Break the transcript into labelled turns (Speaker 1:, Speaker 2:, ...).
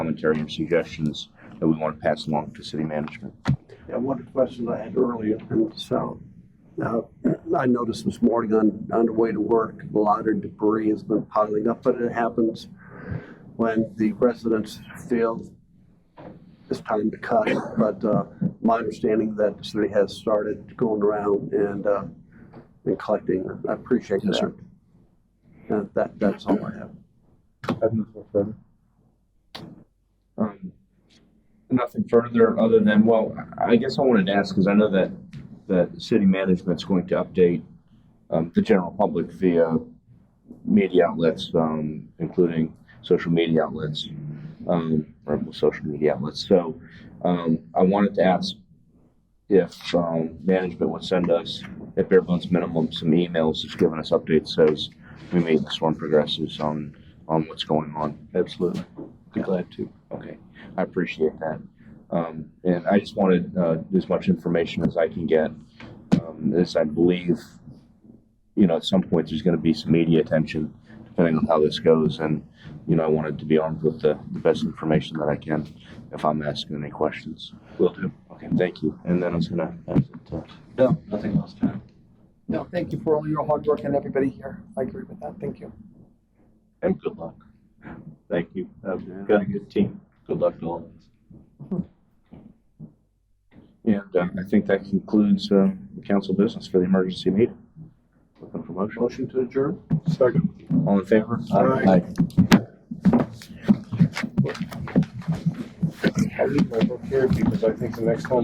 Speaker 1: commentary and suggestions that we want to pass along to city management.
Speaker 2: Yeah, one question I had earlier, so, uh, I noticed this morning on, on the way to work, a lot of debris has been piling up, but it happens when the residents feel it's time to cut. But, uh, my understanding that the city has started going around and, uh, and collecting, I appreciate
Speaker 1: Yes,
Speaker 2: that. And that, that's all I have.
Speaker 3: Have nothing further.
Speaker 1: Um, Nothing further other than, well, I guess I wanted to ask, because I know that, that city management's going to update um, the general public via media outlets, um, including social media outlets, um, or social media outlets. So, um, I wanted to ask if, um, management would send us, at bare bones minimum, some emails, just giving us updates as we meet, this one progresses on, on what's going on.
Speaker 3: Absolutely. Be glad to.
Speaker 1: Okay, I appreciate that. Um, and I just wanted, uh, as much information as I can get. Um, this, I believe, you know, at some point, there's gonna be some media attention, depending on how this goes, and, you know, I wanted to be armed with the, the best information that I can if I'm asking any questions.
Speaker 3: Will do.
Speaker 1: Okay, thank you, and then I was gonna uh, pass it to.
Speaker 3: No, nothing else, Tom.
Speaker 4: No, thank you for all your hard work and everybody here. I agree with that. Thank you.
Speaker 3: And good luck. Thank you. I've got a good team. Good luck to all of us.
Speaker 1: And, uh, I think that concludes, uh, council business for the emergency meeting. Looking for motion,
Speaker 2: Motion to adjourn?
Speaker 1: all in favor?
Speaker 2: Aye.
Speaker 5: I'll leave my book here because I think the next one